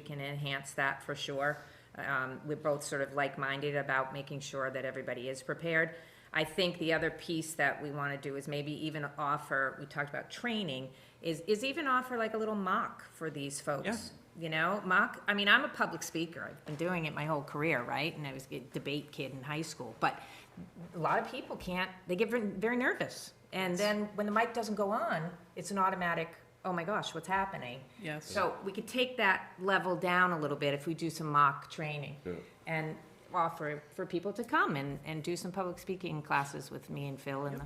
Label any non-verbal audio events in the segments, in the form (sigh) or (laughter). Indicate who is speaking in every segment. Speaker 1: we can enhance that for sure. Um, We're both sort of like-minded about making sure that everybody is prepared. I think the other piece that we want to do is maybe even offer, we talked about training, is, is even offer like a little mock for these folks.
Speaker 2: Yeah.
Speaker 1: You know, mock, I mean, I'm a public speaker. I've been doing it my whole career, right? And I was a debate kid in high school. But a lot of people can't, they get very, very nervous. And then when the mic doesn't go on, it's an automatic, oh my gosh, what's happening?
Speaker 2: Yes.
Speaker 1: So we could take that level down a little bit if we do some mock training and offer for people to come and, and do some public speaking classes with me and Phil and the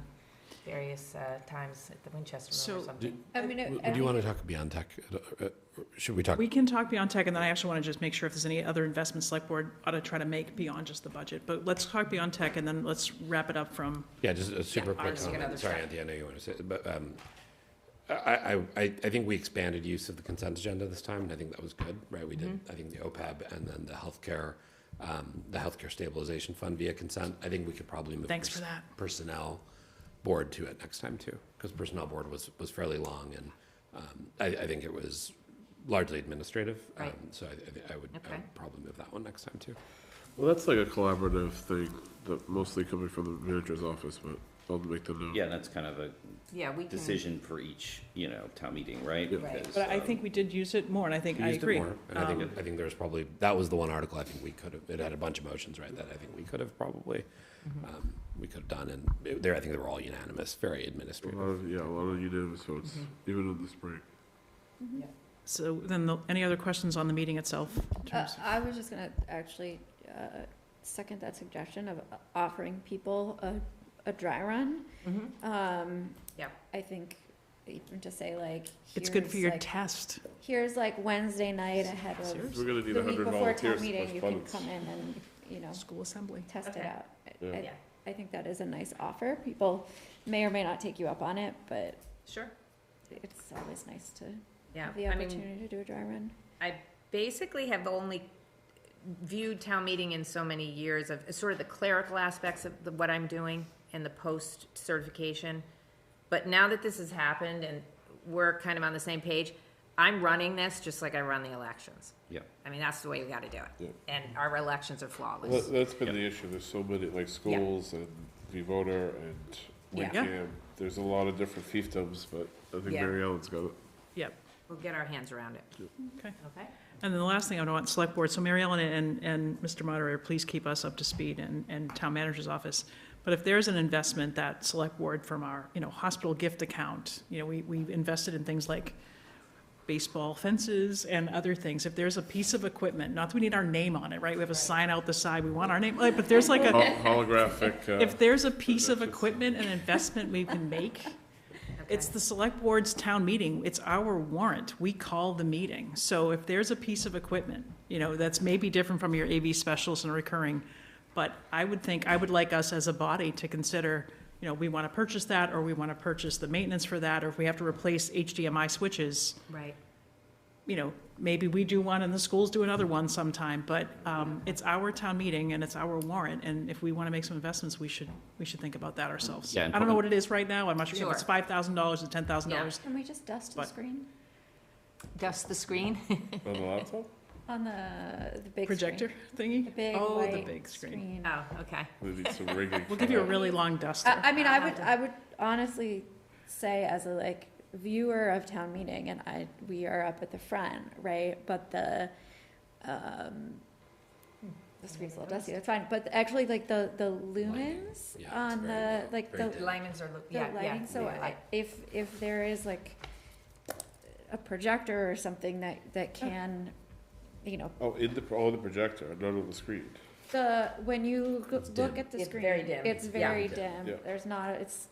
Speaker 1: various uh, times at the Winchester Room or
Speaker 2: So-
Speaker 1: something.
Speaker 3: I mean,
Speaker 4: W-
Speaker 3: I- I
Speaker 4: Do you want
Speaker 3: think
Speaker 4: to talk beyond tech? Uh, uh, Should we talk?
Speaker 2: We can talk beyond tech, and then I actually want to just make sure if there's any other investments select board ought to try to make beyond just the budget. But let's talk beyond tech, and then let's wrap it up from,
Speaker 4: Yeah, just a super quick
Speaker 1: ours, you can
Speaker 4: comment.
Speaker 1: understand.
Speaker 4: Sorry, Anthony, I know you want to say, but um, I, I, I I think we expanded use of the consent agenda this time, and I think that was good, right? We did, I think the OPEB and then the healthcare, um, the healthcare stabilization fund via consent. I think we could probably move.
Speaker 2: Thanks
Speaker 4: pers-
Speaker 2: for that.
Speaker 4: Personnel board to it next time too, because personnel board was, was fairly long and um, I, I think it was largely administrative.
Speaker 1: Right.
Speaker 4: um, So I, I think I would I
Speaker 1: Okay.
Speaker 4: would probably move that one next time too.
Speaker 5: Well, that's like a collaborative thing that mostly coming from the manager's office, but I'll make them know.
Speaker 6: Yeah, that's kind of a
Speaker 1: Yeah, we can.
Speaker 6: decision for each, you know, town meeting, right?
Speaker 5: Yeah.
Speaker 1: Right.
Speaker 6: Because,
Speaker 2: but I
Speaker 6: um,
Speaker 2: think we did use it more, and I think
Speaker 4: We
Speaker 2: I
Speaker 4: used it
Speaker 2: agree.
Speaker 4: more, And I
Speaker 2: Um,
Speaker 4: think, I think there's probably, that was the one article I think we could have, it had a bunch of motions, right, that I think we could have probably,
Speaker 2: Mm-hmm.
Speaker 4: um, we could have done, and it- there, I think they were all unanimous, very
Speaker 5: A lot
Speaker 4: administrative.
Speaker 5: of, yeah, a lot of unanimous votes,
Speaker 3: Mm-hmm.
Speaker 5: even in the spring.
Speaker 2: So then, the- any other questions on the meeting itself? in
Speaker 3: Uh,
Speaker 2: terms of-
Speaker 3: I was just gonna actually, uh, second that suggestion of offering people a, a dry run.
Speaker 1: Mhm.
Speaker 3: Um,
Speaker 1: Yeah.
Speaker 3: I think even to say like.
Speaker 2: It's good for
Speaker 3: here's,
Speaker 2: your
Speaker 3: like-
Speaker 2: test.
Speaker 3: Here's like Wednesday night ahead of
Speaker 5: We're
Speaker 2: Seriously?
Speaker 5: gonna need
Speaker 3: the
Speaker 5: a
Speaker 3: week
Speaker 5: hundred
Speaker 3: before
Speaker 5: volunteers
Speaker 3: town
Speaker 5: to
Speaker 3: meeting,
Speaker 5: push
Speaker 3: you can come
Speaker 5: buttons.
Speaker 3: in and, you know,
Speaker 2: School assembly.
Speaker 3: test it
Speaker 1: Okay.
Speaker 3: out. I-
Speaker 5: Yeah.
Speaker 3: I-
Speaker 1: Yeah,
Speaker 3: I think that is a nice offer. People may or may not take you up on it, but
Speaker 1: sure,
Speaker 3: it's always nice to
Speaker 1: yeah.
Speaker 3: have the
Speaker 1: I mean,
Speaker 3: opportunity to do a dry run.
Speaker 1: I basically have only viewed town meeting in so many years of sort of the clerical aspects of the- what I'm doing and the post certification. But now that this has happened and we're kind of on the same page, I'm running this just like I run the elections.
Speaker 6: Yeah,
Speaker 1: I mean, that's the way we gotta do it. And our elections are flawless.
Speaker 5: That's been the issue, there's so many, like, schools and the voter and
Speaker 1: Yeah.
Speaker 2: Yeah.
Speaker 5: Wyndham, there's a lot of different fiefdoms, but I think
Speaker 1: Yeah.
Speaker 5: Mary Ellen's got it.
Speaker 2: Yep.
Speaker 1: We'll get our hands around it.
Speaker 2: Okay.
Speaker 1: Okay?
Speaker 2: And then the last thing I would want, select board, so Mary Ellen and, and Mr. Moderator, please keep us up to speed and, and town manager's office. But if there's an investment that select board from our, you know, hospital gift account, you know, we, we invested in things like baseball fences and other things. If there's a piece of equipment, not that we need our name on it, right? We have a sign out the side, we want our name, like, but there's like a,
Speaker 5: Hol- (laughs) Holographic, uh,
Speaker 2: if there's a piece of equipment and investment we (laughs) can make,
Speaker 1: Okay.
Speaker 2: it's the select board's town meeting, it's our warrant, we call the meeting. So if there's a piece of equipment, you know, that's maybe different from your AV specialist and recurring, but I would think, I would like us as a body to consider, you know, we want to purchase that, or we want to purchase the maintenance for that, or if we have to replace HDMI switches,
Speaker 1: Right.
Speaker 2: you know, maybe we do one and the schools do another one sometime, but um, it's our town meeting and it's our warrant, and if we want to make some investments, we should, we should think about that ourselves.
Speaker 6: Yeah,
Speaker 2: I
Speaker 6: and
Speaker 2: don't know what
Speaker 6: probably-
Speaker 2: it is right now, I'm not sure if it's
Speaker 1: Sure.
Speaker 2: five thousand dollars or ten thousand
Speaker 1: Yeah.
Speaker 2: dollars,
Speaker 3: Can we just dust the
Speaker 2: But-
Speaker 3: screen
Speaker 1: Dust the screen? (laughs)
Speaker 5: on the laptop?
Speaker 3: on the, the big screen?
Speaker 2: projector thingy?
Speaker 3: The big
Speaker 2: Oh, the
Speaker 3: white
Speaker 2: big screen.
Speaker 1: Oh, okay.
Speaker 5: We need
Speaker 3: (laughs)
Speaker 5: some rigging.
Speaker 2: We'll
Speaker 5: for
Speaker 2: give you a
Speaker 5: that.
Speaker 2: really long duster.
Speaker 3: I, I mean, I would, I would honestly say as a like viewer of town meeting, and I, we are up at the front, right? But the, um, the screen's a little dusty, that's fine, but actually like the, the lumens
Speaker 4: Yeah, it's
Speaker 3: on
Speaker 4: very
Speaker 3: the,
Speaker 4: low,
Speaker 3: like
Speaker 4: very
Speaker 3: the,
Speaker 4: dim.
Speaker 1: Limons are,
Speaker 3: the
Speaker 1: yeah, yeah.
Speaker 3: lighting, so
Speaker 1: yeah,
Speaker 3: I-
Speaker 1: light.
Speaker 3: if, if there is like a projector or something that, that can, you know,
Speaker 5: Oh, in the, oh, the projector, not on the screen.
Speaker 3: the, when you go-
Speaker 4: It's
Speaker 3: look
Speaker 4: dim.
Speaker 3: at the
Speaker 1: It's
Speaker 3: screen,
Speaker 1: very dim.
Speaker 3: it's
Speaker 1: Yeah.
Speaker 3: very
Speaker 5: Yeah.
Speaker 3: dim, there's not, it's,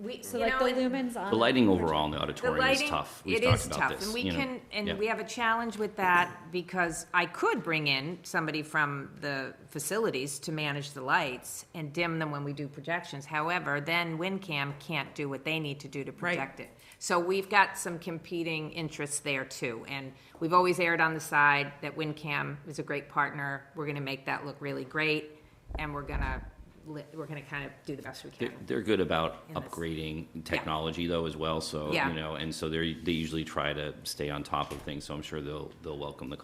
Speaker 1: We,
Speaker 3: so
Speaker 1: you
Speaker 3: like
Speaker 1: know,
Speaker 3: the
Speaker 1: and-
Speaker 3: lumens on.
Speaker 6: the lighting
Speaker 3: projector-
Speaker 6: overall in the
Speaker 1: The
Speaker 6: auditorium is
Speaker 1: lighting,
Speaker 6: tough. We've
Speaker 1: it
Speaker 6: talked
Speaker 1: is
Speaker 6: about
Speaker 1: tough,
Speaker 6: this.
Speaker 1: and we
Speaker 6: you know.
Speaker 1: can,
Speaker 6: Yeah.
Speaker 1: and we have a challenge with that, because I could bring in somebody from the facilities to manage the lights and dim them when we do projections, however, then WinCam can't do what they need to do to project it. So we've got some competing interests there too, and we've always erred on the side that WinCam is a great partner, we're gonna make that look really great, and we're gonna, li- we're gonna kind of do the best we
Speaker 6: They're,
Speaker 1: can.
Speaker 6: they're good about
Speaker 1: In this-
Speaker 6: upgrading technology though as well, so,
Speaker 1: Yeah.
Speaker 6: you know, and so they're, they usually try to stay on top of things, so I'm sure they'll, they'll welcome the